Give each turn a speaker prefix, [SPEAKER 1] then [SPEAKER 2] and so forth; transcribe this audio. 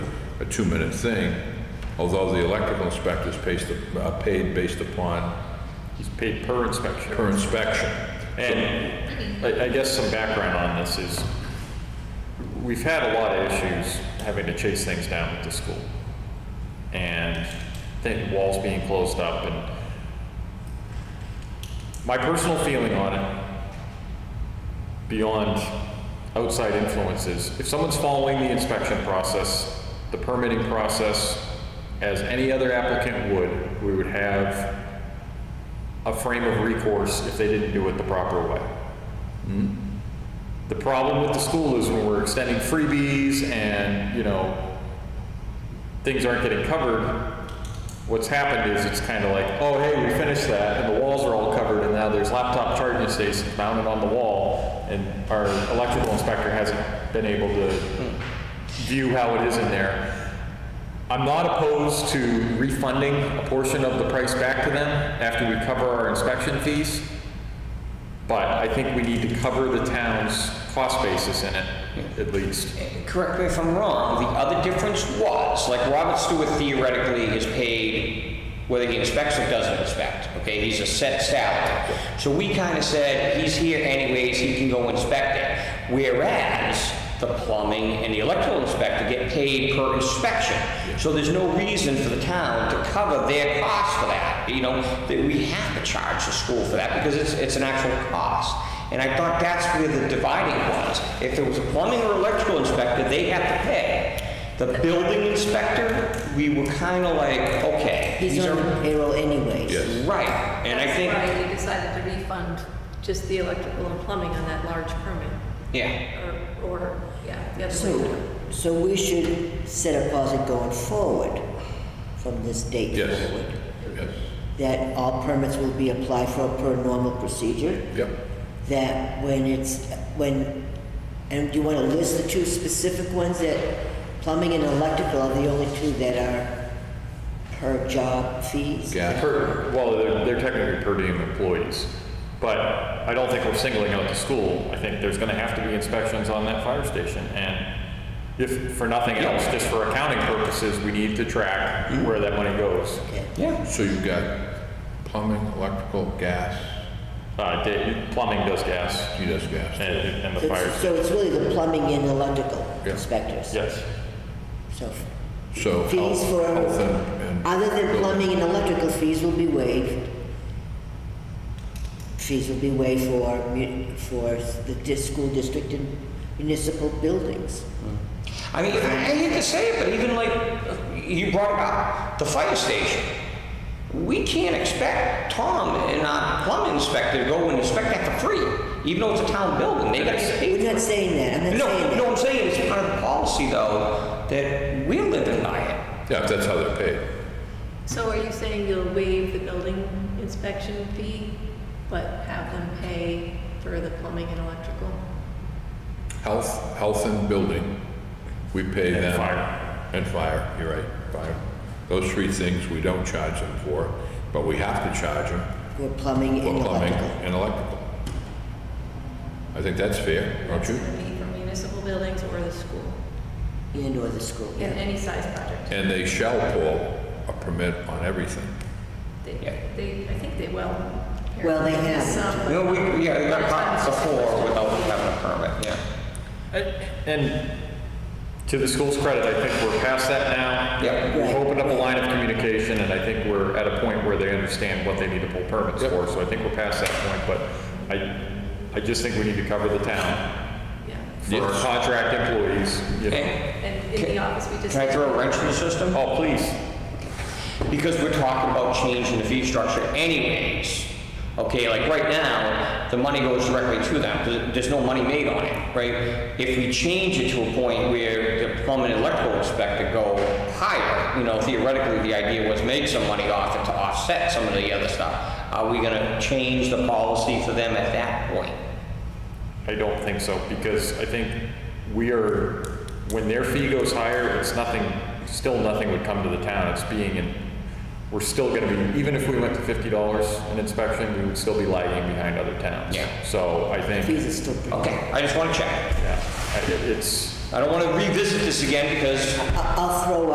[SPEAKER 1] two-minute thing, although the electrical inspector is paid, uh, paid based upon
[SPEAKER 2] He's paid per inspection.
[SPEAKER 1] per inspection.
[SPEAKER 2] And I, I guess some background on this is, we've had a lot of issues having to chase things down with the school. And then walls being closed up and my personal feeling on it, beyond outside influences, if someone's following the inspection process, the permitting process, as any other applicant would, we would have a frame of recourse if they didn't do it the proper way. The problem with the school is when we're extending freebies and, you know, things aren't getting covered, what's happened is it's kind of like, oh, hey, we finished that, and the walls are all covered, and now there's laptop charging stations mounted on the wall, and our electrical inspector hasn't been able to view how it is in there. I'm not opposed to refunding a portion of the price back to them after we cover our inspection fees, but I think we need to cover the town's cost basis in it, at least.
[SPEAKER 3] Correct me if I'm wrong, the other difference was, like Robert Stewart theoretically is paid whether he inspects or doesn't inspect, okay? He's a set salary. So we kind of said, he's here anyways, he can go inspect it. Whereas the plumbing and the electrical inspector get paid per inspection. So there's no reason for the town to cover their cost for that, you know? That we have to charge the school for that because it's, it's an actual cost. And I thought that's where the dividing was. If there was a plumbing or electrical inspector, they had to pay. The building inspector, we were kind of like, okay.
[SPEAKER 4] He's
[SPEAKER 3] these
[SPEAKER 4] on the
[SPEAKER 3] are-
[SPEAKER 4] payroll anyways.
[SPEAKER 1] Yes.
[SPEAKER 3] Right, and I
[SPEAKER 5] That's
[SPEAKER 3] think,
[SPEAKER 5] why we decided to refund just the electrical and plumbing on that large permit,
[SPEAKER 3] yeah,
[SPEAKER 5] or, or, yeah, the other way.
[SPEAKER 4] So, so we should set a policy going forward from this date
[SPEAKER 1] Yes.
[SPEAKER 4] forward.
[SPEAKER 1] Yes,
[SPEAKER 4] That all permits will be applied for per normal procedure.
[SPEAKER 1] yep.
[SPEAKER 4] That when it's, when, and do you want to list the two specific ones that plumbing and electrical are the only two that are per job fees?
[SPEAKER 1] Gas,
[SPEAKER 2] Per, well, they're, they're technically per diem employees, but I don't think we're singling out the school. I think there's gonna have to be inspections on that fire station, and if, for nothing else, just for accounting purposes, we need to track where that money goes.
[SPEAKER 4] Okay.
[SPEAKER 3] yeah.
[SPEAKER 1] so you've got plumbing, electrical, gas,
[SPEAKER 2] Uh, da- plumbing does gas,
[SPEAKER 1] he does gas.
[SPEAKER 2] and, and the
[SPEAKER 4] So
[SPEAKER 2] fire,
[SPEAKER 4] it's- So it's really the plumbing and electrical
[SPEAKER 1] Yeah.
[SPEAKER 4] inspectors.
[SPEAKER 2] yes.
[SPEAKER 4] So
[SPEAKER 1] So
[SPEAKER 4] fees
[SPEAKER 1] health-
[SPEAKER 4] for,
[SPEAKER 1] health and- and
[SPEAKER 4] other than
[SPEAKER 1] building.
[SPEAKER 4] plumbing and electrical fees will be waived. Fees will be waived for, mu- for the dis- school district and municipal buildings.
[SPEAKER 3] I mean, I I hate to say it, but even like, you brought about the fire station. We can't expect Tom and our plumbing inspector to go and inspect that for free, even though it's a town building, they gotta get paid.
[SPEAKER 4] We're not saying that, I'm not
[SPEAKER 3] No,
[SPEAKER 4] saying
[SPEAKER 3] no,
[SPEAKER 4] that.
[SPEAKER 3] I'm saying it's part of the policy though, that we live and die it.
[SPEAKER 1] Yeah, that's how they're paid.
[SPEAKER 5] So are you saying you'll waive the building inspection fee, but have them pay for the plumbing and electrical?
[SPEAKER 1] Health, health and building, we pay them.
[SPEAKER 2] And fire.
[SPEAKER 1] And fire, you're right, fire. Those three things we don't charge them for, but we have to charge them
[SPEAKER 4] For plumbing
[SPEAKER 1] for
[SPEAKER 4] and
[SPEAKER 1] plumbing
[SPEAKER 4] electrical.
[SPEAKER 1] and electrical. I think that's fair, don't you?
[SPEAKER 5] That's gonna be for municipal buildings or the school,
[SPEAKER 4] And or the school,
[SPEAKER 5] in
[SPEAKER 4] yeah.
[SPEAKER 5] any size project.
[SPEAKER 1] And they shall pull a permit on everything.
[SPEAKER 5] They,
[SPEAKER 3] Yeah.
[SPEAKER 5] they, I think they will.
[SPEAKER 4] Well, they have.
[SPEAKER 5] Some, but-
[SPEAKER 3] No, we, yeah, we got caught before without having a permit, yeah.
[SPEAKER 2] And to the school's credit, I think we're past that now.
[SPEAKER 3] Yep.
[SPEAKER 2] We've opened up a line of communication, and I think we're at a point where they understand what they need to pull permits for, so I think we're past that point, but I, I just think we need to cover the town
[SPEAKER 5] Yeah,
[SPEAKER 2] for our
[SPEAKER 1] Yes.
[SPEAKER 2] contract employees, you know.
[SPEAKER 3] And
[SPEAKER 5] and in the office, we just.
[SPEAKER 3] can I throw a wrench in the system?
[SPEAKER 2] Oh, please,
[SPEAKER 3] Because we're talking about changing the fee structure anyways. Okay, like right now, the money goes directly to them, There- there's no money made on it, right? If we change it to a point where the plumbing and electrical inspector go higher, you know, theoretically, the idea was make some money off it to offset some of the other stuff. Are we gonna change the policy for them at that point?
[SPEAKER 2] I don't think so, because I think we are, when their fee goes higher, it's nothing, still nothing would come to the town, it's being in, we're still gonna be, even if we went to fifty dollars an inspection, we would still be lagging behind other towns.
[SPEAKER 3] Yeah.
[SPEAKER 2] So I think,
[SPEAKER 4] Fees are still pretty.
[SPEAKER 3] Okay, I just wanna check.
[SPEAKER 2] yeah, I- it- it's,
[SPEAKER 3] I don't wanna revisit this again because
[SPEAKER 4] I- I'll